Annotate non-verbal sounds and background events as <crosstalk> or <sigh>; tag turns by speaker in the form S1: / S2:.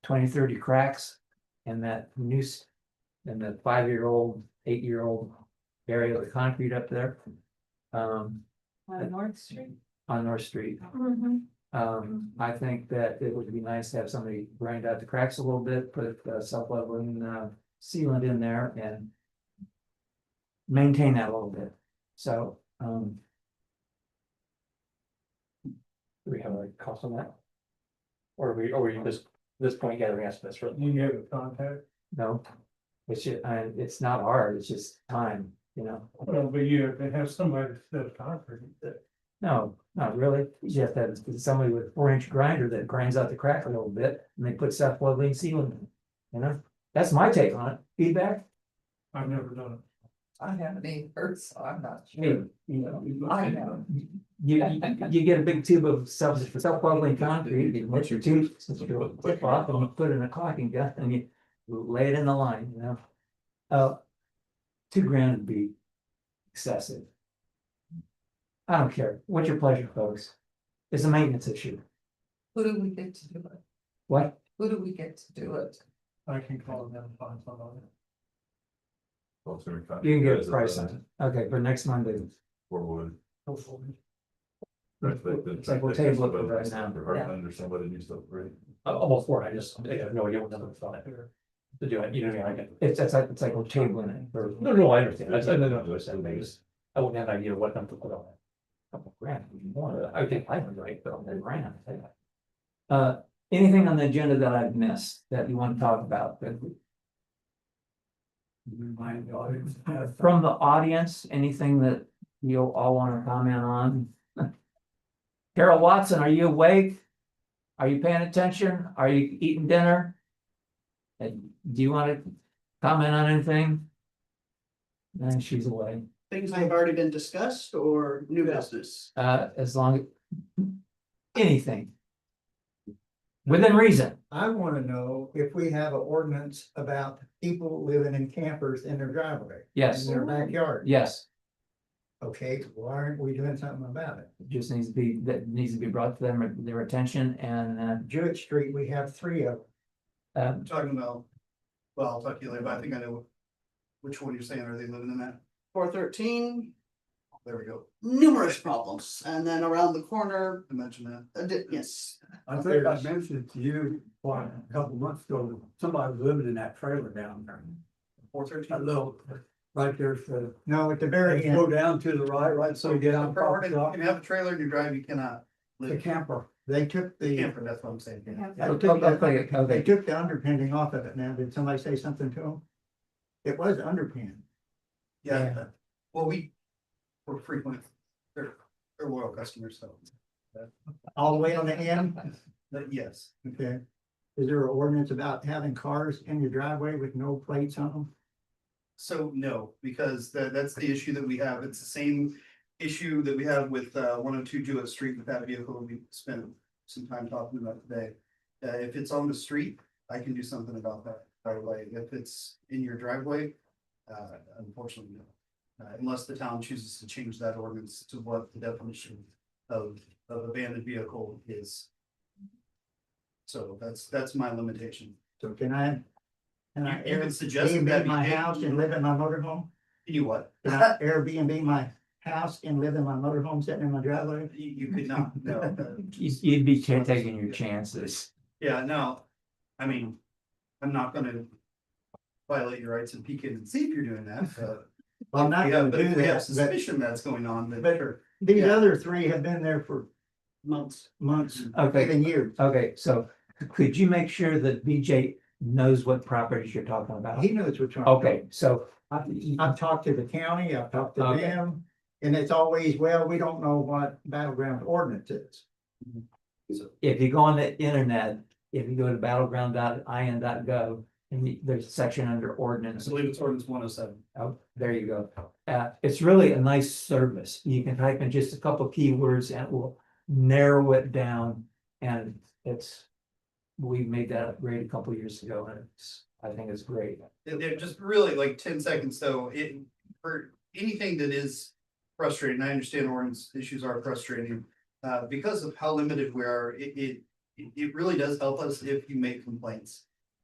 S1: 20, 30 cracks in that noose. In the five-year-old, eight-year-old area of the concrete up there. Um,
S2: On North Street.
S1: on North Street. Um, I think that it would be nice to have somebody grind out the cracks a little bit, put uh self-leveling uh sealant in there and. Maintain that a little bit, so um. Do we have a cost on that? Or are we, or are we just, this point gathering estimates for,
S3: You have a contact,
S1: no? It's ju- I it's not hard, it's just time, you know,
S3: well, but you have to have somebody that's concrete.
S1: no, not really, you just have to have somebody with a four-inch grinder that grinds out the crack a little bit, and they put self-leveling sealant in. You know, that's my take on it, feedback?
S3: I've never done
S2: I haven't either, so I'm not sure.
S1: You,
S3: it.
S2: I know.
S1: you, you get a big tube of self, self-leveling concrete, you put your tube, your tip off, and you put it in a caulking gun, and you lay it in the line, you know? Uh, two grand would be excessive. I don't care, what's your pleasure, folks? It's a maintenance issue,
S2: Who do we get to do it?
S1: what?
S2: Who do we get to do it?
S3: I can call them and find somebody.
S1: You can get a price on it, okay, for next Monday,
S4: Or would.
S3: Hopefully.
S1: It's like we'll table it for right now.
S4: For Heartland or somebody needs to upgrade.
S5: I'm I'm all for it, I just, I have no idea what number it's on it, to do it, you know, what I mean? I get.
S1: it's, it's like, it's like we're tabling it for
S5: No, no, I understand, I, I don't know, I understand, I just, I wouldn't have an idea what number to put on it.
S1: a couple grand, if you want.
S5: I would think I would write, but.
S1: They ran, I tell ya. Uh, anything on the agenda that I've missed that you want to talk about that? we-
S3: Remind the audience.
S1: Uh, From the audience, anything that you all want to comment on? <laughs> Carol Watson, are you awake? Are you paying attention? Are you eating dinner? And do you want to comment on anything? And she's away,
S6: Things that have already been discussed or new business?
S1: uh, as long, anything. Within reason.
S7: I wanna know if we have an ordinance about people living in campers in their driveway, in
S1: Yes,
S7: their backyard.
S1: yes.
S7: Okay, why aren't we doing something about it?
S1: just needs to be, that needs to be brought to them, their attention and,
S7: Jewett Street, we have three of them.
S1: uh, uh,
S6: I'm talking about, well, I'll talk to you later, but I think I know which one you're saying, are they living in that? Four thirteen. There we go. Numerous problems, and then around the corner. I mentioned that. yes,
S8: I think I mentioned to you what, a couple months ago, somebody was living in that trailer down there.
S6: four
S8: That
S6: thirteen.
S8: little, right there, so
S7: No, at the very
S8: go
S7: end,
S8: down to the right, right, so you get out.
S6: Property, You
S8: off
S6: can have a trailer, you drive, you cannot.
S8: The
S6: live.
S8: camper.
S7: they took the,
S6: Camper, that's what I'm saying.
S7: they
S1: okay,
S7: took the-
S1: okay,
S7: they
S1: okay,
S7: took the underpinning off of it now. Did somebody say something to them? It was underpinned.
S6: Yeah, well, we, we're frequent, they're, they're loyal customers, so,
S7: all the way on the end.
S6: but yes.
S7: Okay. Is there an ordinance about having cars in your driveway with no plates on them?
S6: So no, because that that's the issue that we have. It's the same issue that we have with uh one oh two Jewett Street with that vehicle we spent some time talking about today. Uh, if it's on the street, I can do something about that right away. If it's in your driveway, uh, unfortunately, no. Uh, unless the town chooses to change that ordinance to what the definition of of abandoned vehicle is. So that's that's my limitation.
S7: So can I? Can I
S6: You- you
S7: air,
S6: can suggest that
S7: Airbnb
S6: be
S7: my
S6: taken.
S7: house and live in my motorhome?
S6: You what?
S7: Can
S6: <laughs>
S7: I Airbnb my house and live in my motorhome sitting in my driveway?
S6: You you could not, no.
S7: <laughs>
S1: You- you'd be cha- taking your chances.
S6: Yeah, no, I mean, I'm not gonna violate your rights and peek in and see if you're doing that, but.
S7: Well, I'm not
S6: Yeah,
S7: gonna
S6: but
S7: do
S6: if we have
S7: that, but
S6: suspicion that's going on, then
S7: But-
S6: sure,
S7: these
S6: yeah.
S7: other three have been there for
S6: months.
S7: months,
S1: Okay,
S7: even years.
S1: okay, so could you make sure that BJ knows what properties you're talking about?
S7: He knows which one.
S1: Uh, Okay, so, uh,
S7: I've, I've talked to the county, I've talked to
S1: Okay.
S7: them, and it's always, well, we don't know what battleground ordinance is.
S1: if you go on the internet, if you go to battleground.in.gov, and you- there's a section under
S6: I
S1: ordinance,
S6: believe it's ordinance one oh seven.
S1: oh, there you go. Uh, it's really a nice service, you can type in just a couple keywords and it will narrow it down, and it's. We made that upgrade a couple years ago, and it's, I think it's great.
S6: They're just really like ten seconds, so it, for anything that is frustrating, I understand ordinance issues are frustrating. Uh, because of how limited we are, it, it,
S9: it, it really does help us if you make complaints.